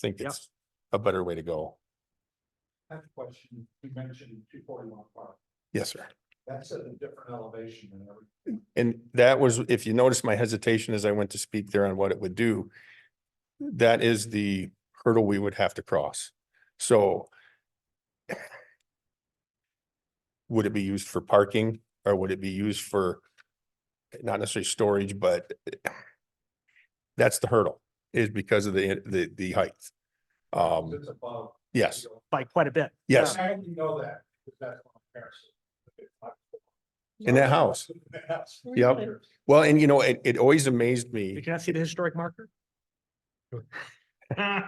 think Yep. it's a better way to go. I have a question. You mentioned two forty one park. Yes, sir. That's at a different elevation than every. And that was, if you notice my hesitation as I went to speak there on what it would do, that is the hurdle we would have to cross. So would it be used for parking or would it be used for not necessarily storage, but that's the hurdle is because of the, the, the height. Um, It's above. yes, by quite a bit. yes. How do you know that? Because that's on comparison. In that house. Yep. Well, and you know, it, it always amazed You me cannot see the historic marker?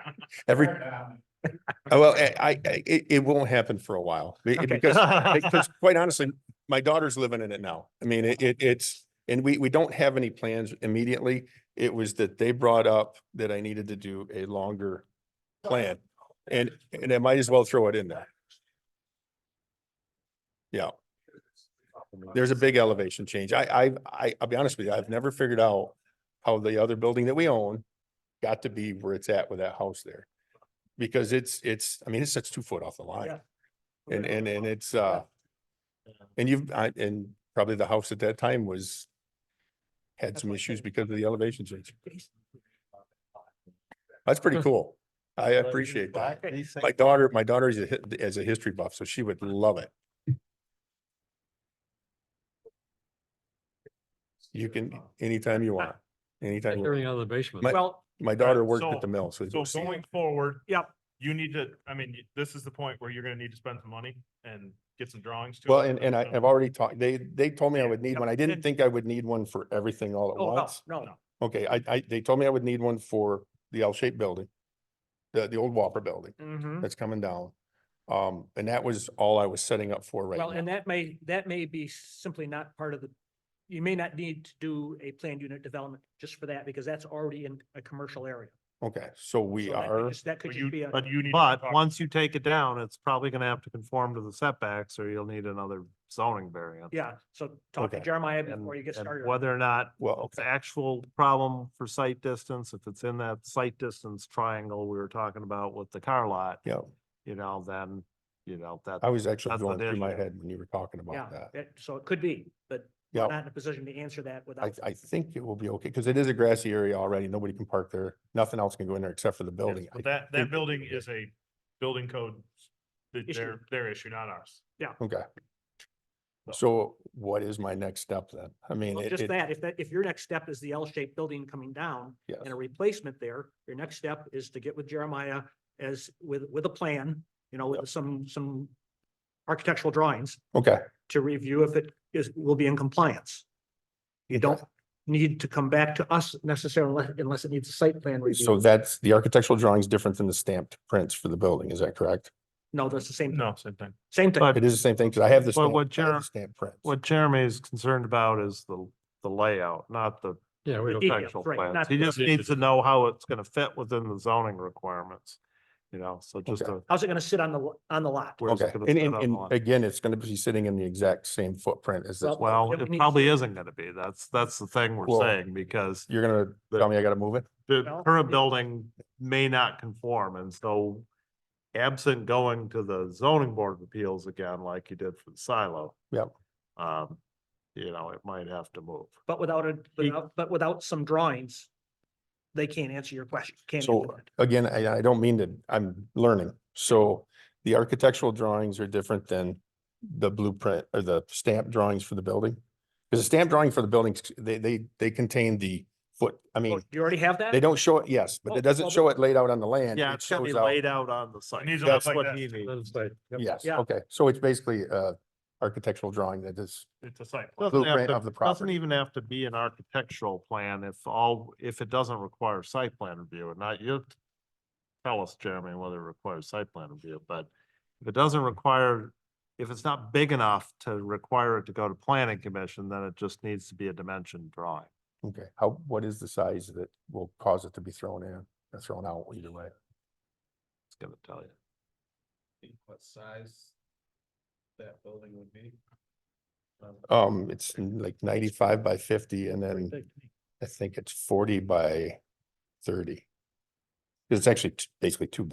every, Um, Uh, Well, I, I, I- it, it won't happen for a while be- Okay. because, because quite honestly, my daughter's living in it now. I mean, it, it, it's, and we, we don't have any plans immediately. It was that they brought up that I needed to do a longer plan and, and I might as well throw it in there. Yeah, there's a big elevation change. I, I, I, I'll be honest with you, I've never figured out how the other building that we own got to be where it's at with that house there. Because it's, it's, I mean, it's, it's two foot off the line. Yeah. And, and, and it's, uh, and you've, I, and probably the house at that time was had That's some why I issues said- because of the elevation change. That's pretty cool. I appreciate that. My daughter, my daughter is a, hi- is a history buff, so she would love it. You can, anytime you want, anytime. you want. Everything out of the basement. My- Well, My daughter worked so- at the mill, so. So going forward. Yep. You need to, I mean, y- this is the point where you're gonna need to spend some money and get some drawings to. Well, it, and, and I, so- I've already talked, they, they told me I would need Yep. one. I didn't think I would need one for everything all at oh, no, once. no, no. Okay, I, I, they told me I would need one for the L-shaped building, the, the old Whopper building Mhm. that's coming down. Um, and that was all I was setting up for Well, right and now. that may, that may be simply not part of the, you may not need to do a planned unit development just for that because that's already in a commercial area. Okay, so we So that could are, just- That could But just be you, a. but you need. to But talk- once you take it down, it's probably gonna have to conform to the setbacks or you'll need another zoning variant. Yeah, so talk to Okay. Jeremiah And- before you get and started. on it. Whether or not well, it's actual problem for sight distance, if it's in that sight distance triangle we were talking about with the car lot, yeah, you know, then, you know, that. I was actually That's going what it through my is. head when you were talking Yeah, about that. that- so it could be, but we're Yeah, not in a position to answer I, that without. I think it will be okay, because it is a grassy area already. Nobody can park there. Nothing else can go in there except for the Yes, building. But I- that, think that that building would be- is a building code, th- Issue. their, their issue, not ours. Okay. So what is my next step then? I mean, Well, it, Just it- that, if that, if your next step is the L-shaped building coming down yes, and a replacement there, your next step is to get with Jeremiah as with, with a plan, you know, with some, some architectural drawings okay, to review if it is, will be in compliance. You don't need to come back to us necessarily unless- unless it needs a site plan so review. that's, the architectural drawing is different than the stamped prints for the building, is that correct? No, that's the same, No, same thing. same thing. But- It is the same thing, because I have the But stamp, what I have the Jer- stamp prints. What Jeremy is concerned about is the, the layout, not the Yeah, we The don't, details, architectural right, not plans. He the- just needs to know how it's gonna fit within the zoning requirements. You know, so just Okay. a. How's it gonna sit on the, lo- on the lot? where it's Okay, gonna and, sit and, on the and line. again, it's gonna be sitting in the exact same footprint as this. one. Well- Well, that we it need- probably isn't gonna be. That's, that's the thing Well- we're saying, because You're gonna the- tell me I gotta move it? the Well, current it- building may not conform, and so absent going to the zoning board of appeals again, like you did for the silo. Yep. Um, you know, it might have to move. But without a, He- without, but without some drawings, they can't answer your question. can't So- answer it. Again, I, I don't mean to, I'm learning. So the architectural drawings are different than the blueprint or the stamp drawings for the building? Because the stamp drawing for the buildings, they, they, they contain the foot, I Oh, mean, Do you already have that? they don't show it, yes, but Oh, it doesn't well, show it laid out on the land. Yeah, it it's gonna be shows out- laid out on the site. needs to look That's like what that. he needs. let Yes, Yeah. okay. So it's basically uh architectural drawing that is, It's a site. plan. Doesn't have Blueprint to- of the Doesn't property. even have to be an architectural plan if all, if it doesn't require site plan review and not you. Tell us, Jeremy, whether it requires site plan review, but if it doesn't require, if it's not big enough to require it to go to planning commission, then it just needs to be a dimension drawing. okay, how, what is the size that will cause it to be thrown in or thrown out either way? It's gonna tell you. think what size that building would be. Um, it's like ninety-five by fifty and then I think it's forty by thirty. It's actually t- basically two